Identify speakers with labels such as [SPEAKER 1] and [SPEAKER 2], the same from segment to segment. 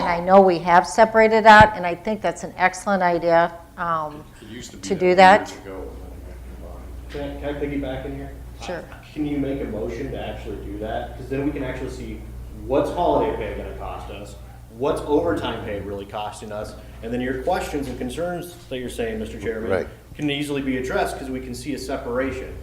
[SPEAKER 1] I know we have separated out, and I think that's an excellent idea. um,
[SPEAKER 2] It used to be.
[SPEAKER 1] To do
[SPEAKER 2] Years
[SPEAKER 1] that?
[SPEAKER 2] ago, and then
[SPEAKER 3] Can I, can I piggyback in here?
[SPEAKER 1] Sure.
[SPEAKER 3] Can you make a motion to actually do that? Because then we can actually see what's holiday pay gonna cost us? What's overtime pay really costing us? And then your questions and concerns that you're saying, Mr. Chairman,
[SPEAKER 4] Right.
[SPEAKER 3] can easily be addressed because we can see a separation.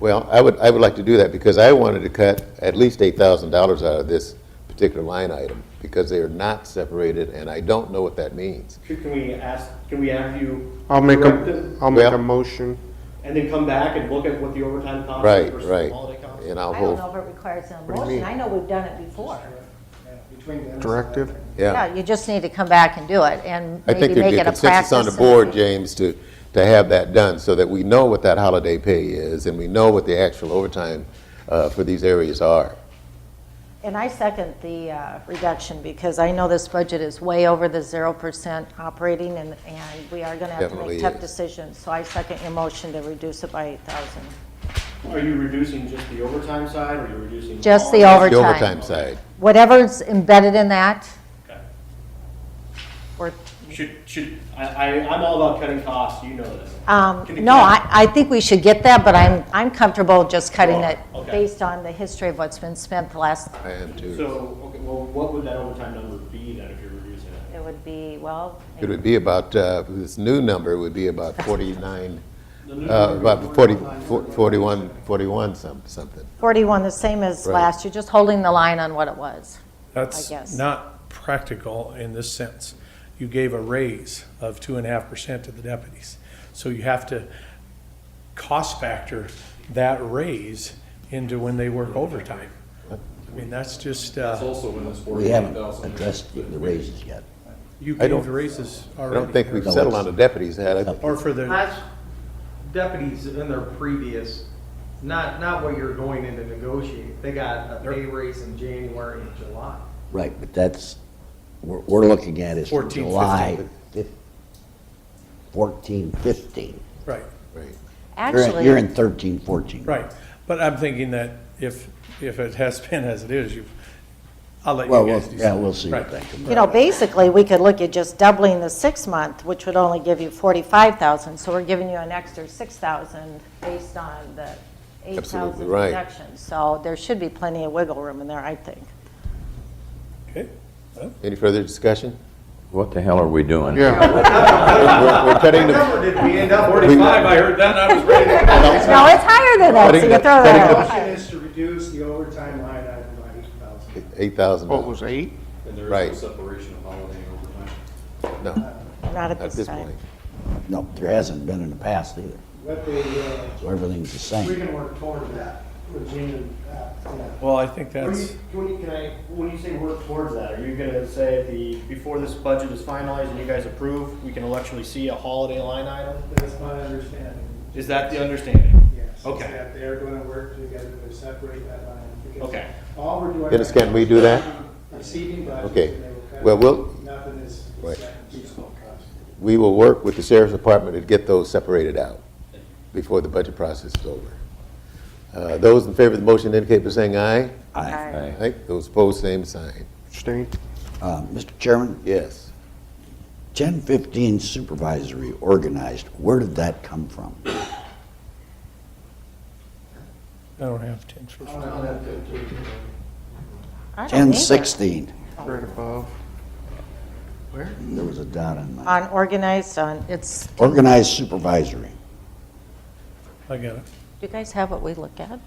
[SPEAKER 4] Well, I would, I would like to do that because I wanted to cut at least eight thousand dollars out of this particular line item because they are not separated and I don't know what that means.
[SPEAKER 3] Should- Can we ask, can we have you?
[SPEAKER 5] I'll make
[SPEAKER 3] correct
[SPEAKER 5] a,
[SPEAKER 3] them
[SPEAKER 5] I'll make
[SPEAKER 4] Well-
[SPEAKER 5] a motion.
[SPEAKER 3] And then come back and look at what the overtime cost is
[SPEAKER 4] Right,
[SPEAKER 3] versus the
[SPEAKER 4] right.
[SPEAKER 3] holiday cost?
[SPEAKER 4] And
[SPEAKER 1] I
[SPEAKER 4] I'll
[SPEAKER 1] don't
[SPEAKER 4] hold,
[SPEAKER 1] know if it requires a
[SPEAKER 4] do you
[SPEAKER 1] motion.
[SPEAKER 4] mean?
[SPEAKER 1] I know we've done it before.
[SPEAKER 5] Directive?
[SPEAKER 4] yeah.
[SPEAKER 1] Yeah, you just need to come back and do it, and
[SPEAKER 4] I think
[SPEAKER 1] maybe
[SPEAKER 4] there'd
[SPEAKER 1] make
[SPEAKER 4] be
[SPEAKER 1] it
[SPEAKER 4] a
[SPEAKER 1] a practice.
[SPEAKER 4] consensus on the
[SPEAKER 1] and-
[SPEAKER 4] board, James, to, to have that done so that we know what that holiday pay is and we know what the actual overtime uh, for these areas are.
[SPEAKER 1] And I second the uh, reduction, because I know this budget is way over the 0% operating, and, and we are going to have to
[SPEAKER 4] Definitely
[SPEAKER 1] make tough
[SPEAKER 4] is.
[SPEAKER 1] decisions. So I second your motion to reduce it by 8,000.
[SPEAKER 3] Are you reducing just the overtime side, or are you reducing?
[SPEAKER 1] Just the
[SPEAKER 3] all?
[SPEAKER 4] The
[SPEAKER 1] Overtime.
[SPEAKER 4] overtime side.
[SPEAKER 1] Whatever's embedded in that,
[SPEAKER 3] Okay.
[SPEAKER 1] or,
[SPEAKER 3] Should, should, I, I, I'm all about cutting costs, you know this.
[SPEAKER 1] um,
[SPEAKER 3] Can you-
[SPEAKER 1] no, I, I think we should get that, but I'm, I'm comfortable just cutting
[SPEAKER 3] Sure,
[SPEAKER 1] it
[SPEAKER 3] okay.
[SPEAKER 1] based on the history of what's been spent the last,
[SPEAKER 4] I am too.
[SPEAKER 3] So, okay, well, what would that overtime number be then if you're reducing it?
[SPEAKER 1] it would be, well,
[SPEAKER 4] It would be about, uh, this new number would be about forty-nine,
[SPEAKER 3] The new
[SPEAKER 4] uh,
[SPEAKER 3] number-
[SPEAKER 4] about forty, forty-one, forty-one some, something.
[SPEAKER 1] 41, the same as
[SPEAKER 4] Right.
[SPEAKER 1] last year, just holding the line on what it was. guess.
[SPEAKER 6] That's not practical in this sense. You gave a raise of two and a half percent to the deputies. So you have to cost factor that raise into when they work overtime. I mean, that's just,
[SPEAKER 2] It's
[SPEAKER 6] uh,
[SPEAKER 2] also in this
[SPEAKER 7] We haven't
[SPEAKER 2] 48,000.
[SPEAKER 7] addressed the raises yet.
[SPEAKER 6] you
[SPEAKER 4] I don't-
[SPEAKER 6] gave raises
[SPEAKER 4] I
[SPEAKER 6] already.
[SPEAKER 4] don't think we've
[SPEAKER 7] No,
[SPEAKER 4] settled on
[SPEAKER 7] it's-
[SPEAKER 4] the deputies' head. I think
[SPEAKER 6] Or for the,
[SPEAKER 8] That's deputies in their previous, not, not what you're going in to negotiate. They got a pay raise in January and July.
[SPEAKER 7] Right, but that's, we're, we're looking at is
[SPEAKER 6] 14,
[SPEAKER 7] July fif- 14, 15.
[SPEAKER 6] right,
[SPEAKER 4] Right.
[SPEAKER 7] You're in-
[SPEAKER 1] Actually.
[SPEAKER 7] You're in 13, 14.
[SPEAKER 6] right. But I'm thinking that if, if it has been as it is, you, I'll let
[SPEAKER 7] Well,
[SPEAKER 6] you
[SPEAKER 7] we'll-
[SPEAKER 6] guys decide.
[SPEAKER 7] yeah, we'll see
[SPEAKER 6] Right.
[SPEAKER 7] what they come
[SPEAKER 1] You know, basically, we could look at just doubling the six-month, which would only give you 45,000, so we're giving you an extra 6,000 based on the 8,000
[SPEAKER 4] Absolutely right.
[SPEAKER 1] reduction. So there should be plenty of wiggle room in there, I think.
[SPEAKER 6] Okay.
[SPEAKER 4] Any further discussion?
[SPEAKER 9] What the hell are we doing?
[SPEAKER 5] Yeah,
[SPEAKER 4] We're we're cutting
[SPEAKER 8] What
[SPEAKER 4] the,
[SPEAKER 8] number did we end up with?
[SPEAKER 2] Forty-five, I heard that, and I was ready.
[SPEAKER 1] No, it's higher than that, so you throw
[SPEAKER 4] Cutting the-
[SPEAKER 1] that
[SPEAKER 4] cutting
[SPEAKER 1] out.
[SPEAKER 10] Motion is to reduce the overtime line item by eight thousand.
[SPEAKER 4] eight thousand
[SPEAKER 5] what was
[SPEAKER 4] dollars.
[SPEAKER 5] eight?
[SPEAKER 2] And there
[SPEAKER 4] Right.
[SPEAKER 2] is no separation of holiday and overtime.
[SPEAKER 4] No,
[SPEAKER 1] Not
[SPEAKER 4] at
[SPEAKER 1] at
[SPEAKER 4] this point.
[SPEAKER 7] No, there hasn't been in the past either,
[SPEAKER 10] What they, uh,
[SPEAKER 7] so everything's the
[SPEAKER 10] we
[SPEAKER 7] same.
[SPEAKER 10] can work toward that, Regina, uh, yeah.
[SPEAKER 6] Well, I
[SPEAKER 3] What
[SPEAKER 6] think
[SPEAKER 3] do
[SPEAKER 6] that's.
[SPEAKER 3] you- Can we- can I, when you say work towards that, are you gonna say at the, before this budget is finalized and you guys approve, we can electually see a holiday line item?
[SPEAKER 10] That's my understanding,
[SPEAKER 3] Is that the understanding?
[SPEAKER 10] yes. is
[SPEAKER 3] Okay.
[SPEAKER 10] That they're gonna work together to separate that line. because
[SPEAKER 3] Okay.
[SPEAKER 10] All we're doing.
[SPEAKER 4] Dennis,
[SPEAKER 10] right
[SPEAKER 4] can
[SPEAKER 10] now
[SPEAKER 4] we
[SPEAKER 10] is
[SPEAKER 4] do that?
[SPEAKER 10] Receiving budgets.
[SPEAKER 4] Okay.
[SPEAKER 10] and they will cut
[SPEAKER 4] Well,
[SPEAKER 10] it.
[SPEAKER 4] we'll-
[SPEAKER 10] Nothing is.
[SPEAKER 4] Right.
[SPEAKER 10] Useful cost.
[SPEAKER 4] We will work with the sheriff's department to get those separated out before the budget process is over. Uh, Those in favor of the motion indicate by saying aye.
[SPEAKER 7] Aye.
[SPEAKER 1] Aye.
[SPEAKER 4] Aye. Those opposed, same sign.
[SPEAKER 5] Abstain?
[SPEAKER 7] Uh, Mr. Chairman,
[SPEAKER 4] Yes.
[SPEAKER 7] 1015 supervisory organized, where did that come from?
[SPEAKER 6] I don't have ten for.
[SPEAKER 1] I don't either.
[SPEAKER 7] 1016,
[SPEAKER 5] Right above.
[SPEAKER 7] there was a dot in my,
[SPEAKER 1] On organized, on, it's, do
[SPEAKER 7] organized supervisory.
[SPEAKER 6] I got it.
[SPEAKER 1] you guys have what we look at?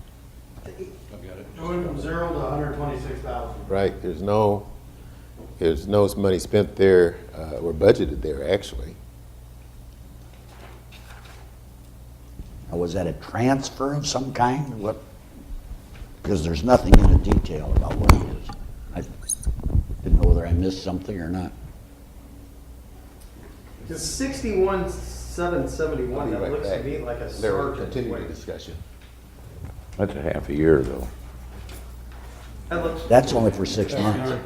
[SPEAKER 2] I've got it.
[SPEAKER 10] Going from zero to hundred twenty-six thousand.
[SPEAKER 4] Right, there's no, there's no money spent there uh, or budgeted there, actually.
[SPEAKER 7] Now, was that a transfer of some kind, or what? Because there's nothing in the detail about what it is. I didn't know whether I missed something or not.
[SPEAKER 8] It's Sixty-one, seven seventy-one,
[SPEAKER 4] I'll be
[SPEAKER 8] that
[SPEAKER 4] right
[SPEAKER 8] looks to
[SPEAKER 4] back.
[SPEAKER 8] me like a
[SPEAKER 4] Larry,
[SPEAKER 8] sergeant
[SPEAKER 4] continue the
[SPEAKER 8] wage.
[SPEAKER 4] discussion.
[SPEAKER 9] That's a half a year, though.
[SPEAKER 8] That looks,
[SPEAKER 7] That's only for six months.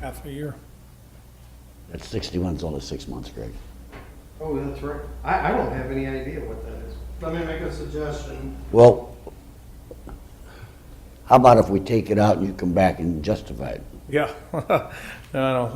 [SPEAKER 6] Half a year.
[SPEAKER 7] That 61's only six months, Greg.
[SPEAKER 8] oh, that's right. I, I don't have any idea what that is.
[SPEAKER 10] Let me make a suggestion.
[SPEAKER 7] Well, how about if we take it out and you come back and justify it?
[SPEAKER 6] Yeah. No, no,